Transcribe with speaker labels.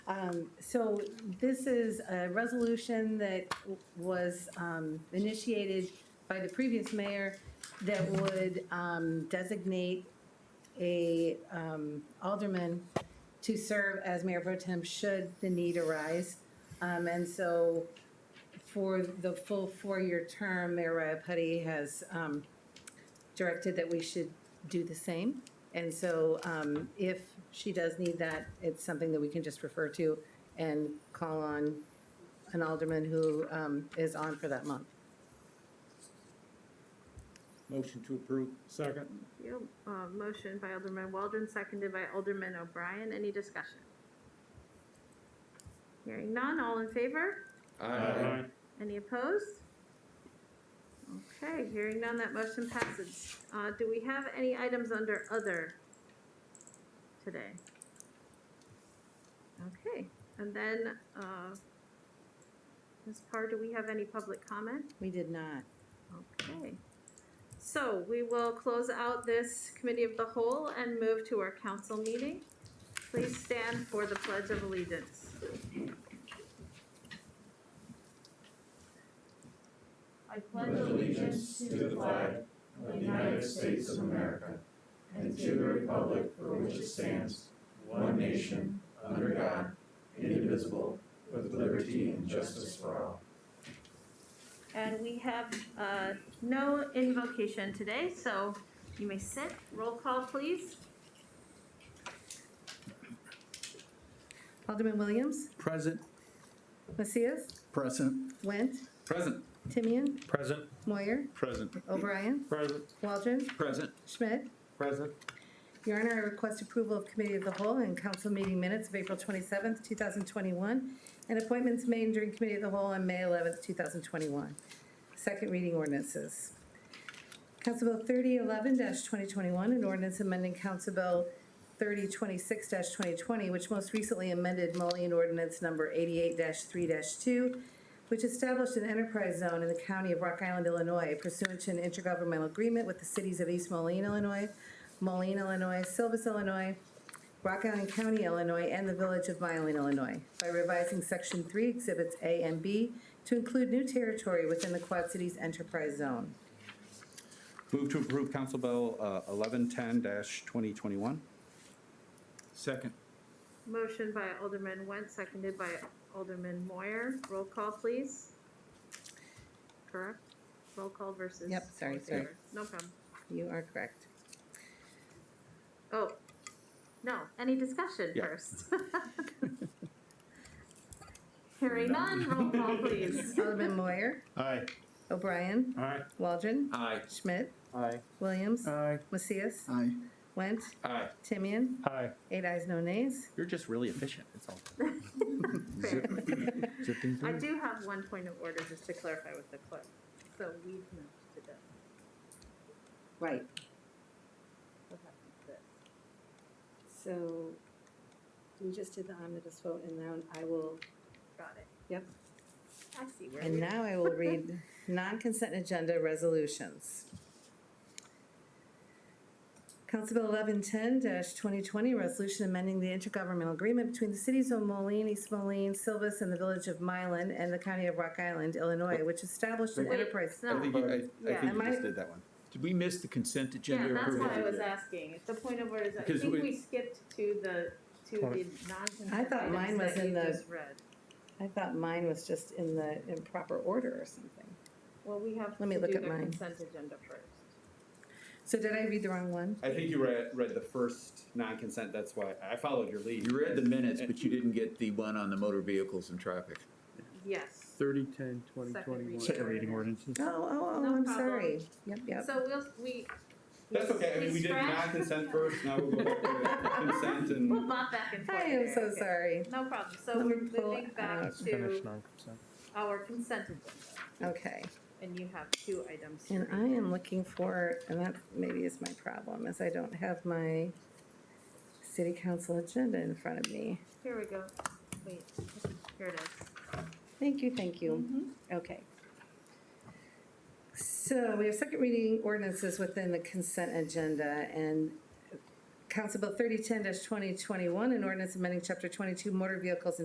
Speaker 1: Um, So this is a resolution that w- was um, initiated by the previous mayor that would um, designate a um, alderman to serve as mayor pro tem should the need arise. Um, And so for the full four-year term, Mayor Raya has um, directed that we should do the same. And so um, if she does need that, it's something that we can just refer to and call on an alderman who um, is on for that month.
Speaker 2: Motion to approve.
Speaker 3: Second.
Speaker 4: Yep, uh, motion by Alderman Weldon, seconded by Alderman O'Brien. Any discussion? Hearing none, all in favor?
Speaker 5: Uh,
Speaker 3: Aye.
Speaker 4: Any opposed? Okay, hearing none, that motion passes. Uh, do we have any items under other today? Okay, and then, uh, Ms. Parr, do we have any public comment?
Speaker 1: We did not.
Speaker 4: Okay. So we will close out this committee of the whole and move to our council meeting. Please stand for the pledge of allegiance.
Speaker 6: I pledge allegiance to the flag of the United States of America and to the republic for which it stands, one nation, under God, indivisible, with liberty and justice for all.
Speaker 4: And we have uh, no invocation today, so you may sit. Roll call, please.
Speaker 1: Alderman Williams,
Speaker 2: Present.
Speaker 1: Macias,
Speaker 2: Present.
Speaker 1: Went,
Speaker 2: Present.
Speaker 1: Timian,
Speaker 3: Present.
Speaker 1: Moyer,
Speaker 2: Present.
Speaker 1: O'Brien,
Speaker 3: Present.
Speaker 1: Waldron,
Speaker 2: Present.
Speaker 1: Schmidt.
Speaker 3: Present.
Speaker 1: Your Honor, I request approval of Committee of the Whole and Council meeting minutes of April 27th, 2021, and appointments made during Committee of the Whole on May 11th, 2021. Second reading ordinances. Council Bill 3011-2021, an ordinance amending Council Bill 3026-2020, which most recently amended Mullion Ordinance Number 88-3-2, which established an enterprise zone in the county of Rock Island, Illinois pursuant to an intergovernmental agreement with the cities of East Moline, Illinois, Moline, Illinois, Silvis, Illinois, Rock Island County, Illinois, and the Village of Mylan, Illinois, by revising Section 3, Exhibits A and B to include new territory within the Quad Cities Enterprise Zone.
Speaker 7: Move to approve Council Bill uh, 1110-2021.
Speaker 2: Second.
Speaker 4: Motion by Alderman Went, seconded by Alderman Moyer. Roll call, please. Correct? Roll call versus.
Speaker 1: Yep, sorry,
Speaker 4: all in
Speaker 1: sorry.
Speaker 4: favor. No problem.
Speaker 1: You are correct.
Speaker 4: Oh, no, any discussion
Speaker 7: Yeah.
Speaker 4: first? Hearing none, roll call please.
Speaker 1: Alderman Moyer,
Speaker 2: Aye.
Speaker 1: O'Brien,
Speaker 3: Aye.
Speaker 1: Waldron,
Speaker 2: Aye.
Speaker 1: Schmidt,
Speaker 3: Aye.
Speaker 1: Williams,
Speaker 3: Aye.
Speaker 1: Macias,
Speaker 2: Aye.
Speaker 1: Went,
Speaker 7: Aye.
Speaker 1: Timian,
Speaker 3: Aye.
Speaker 1: eight ayes, no nays.
Speaker 7: You're just really efficient, that's all.
Speaker 4: Fair.
Speaker 7: Zipping
Speaker 4: I
Speaker 7: through.
Speaker 4: do have one point of order just to clarify with the clerk. So we've moved to this.
Speaker 1: Right,
Speaker 4: What happened to this?
Speaker 1: so we just did the omnibus vote, and now I will
Speaker 4: Got it.
Speaker 1: Yep.
Speaker 4: I see where
Speaker 1: And
Speaker 4: we
Speaker 1: now I will read non-consent agenda resolutions. Council Bill eleven ten twenty twenty, resolution amending the intergovernmental agreement between the cities of Moline, East Moline, Silvis, and the village of Mylan, and the county of Rock Island, Illinois, which established an
Speaker 4: Wait,
Speaker 1: enterprise.
Speaker 7: I think
Speaker 4: no.
Speaker 7: you- I- I
Speaker 4: Yeah.
Speaker 7: think you
Speaker 1: Am I-
Speaker 7: just did that one.
Speaker 2: Did we miss the consent agenda?
Speaker 4: Yeah, that's
Speaker 2: approval?
Speaker 4: what I was asking. If The point of order is, I
Speaker 7: Because
Speaker 4: think
Speaker 7: we-
Speaker 4: we skipped to the, to the non-consent
Speaker 1: I thought mine
Speaker 4: items
Speaker 1: was
Speaker 4: that
Speaker 1: in
Speaker 4: you
Speaker 1: the-
Speaker 4: just read.
Speaker 1: I thought mine was just in the improper order or something.
Speaker 4: Well, we have to
Speaker 1: Let me
Speaker 4: do
Speaker 1: look
Speaker 4: the
Speaker 1: at mine.
Speaker 4: consent agenda first.
Speaker 1: So did I read the wrong one?
Speaker 7: I think you read, read the first non-consent, that's why I followed your lead.
Speaker 5: You read the minutes, but you didn't get the one on the motor vehicles and traffic.
Speaker 4: Yes.
Speaker 3: Thirty, ten, twenty,
Speaker 4: Second
Speaker 3: twenty-one.
Speaker 4: reading. Second reading
Speaker 3: ordinances.
Speaker 1: Oh, oh,
Speaker 4: No
Speaker 1: oh, I'm
Speaker 4: problem.
Speaker 1: sorry. Yep, yep.
Speaker 4: So we'll, we.
Speaker 7: That's okay, I mean, we did
Speaker 4: scratched-
Speaker 7: non-consent first, now we'll go back to consent
Speaker 4: We'll
Speaker 7: and
Speaker 4: bop back and forth.
Speaker 1: I am
Speaker 4: there,
Speaker 1: so
Speaker 4: okay.
Speaker 1: sorry.
Speaker 4: No problem, so
Speaker 1: Let me
Speaker 4: we're
Speaker 1: pull
Speaker 4: moving back
Speaker 1: out-
Speaker 4: to
Speaker 3: non-consent.
Speaker 4: our consent agenda,
Speaker 1: Okay.
Speaker 4: and you have two items. to
Speaker 1: And
Speaker 4: read.
Speaker 1: I am looking for, and that maybe is my problem, is I don't have my city council agenda in front of me.
Speaker 4: Here we go, wait, here it is.
Speaker 1: Thank you, thank you. Okay. So we have second reading ordinances within the consent agenda and Council Bill thirty ten twenty twenty-one, an ordinance amending chapter twenty-two motor vehicles and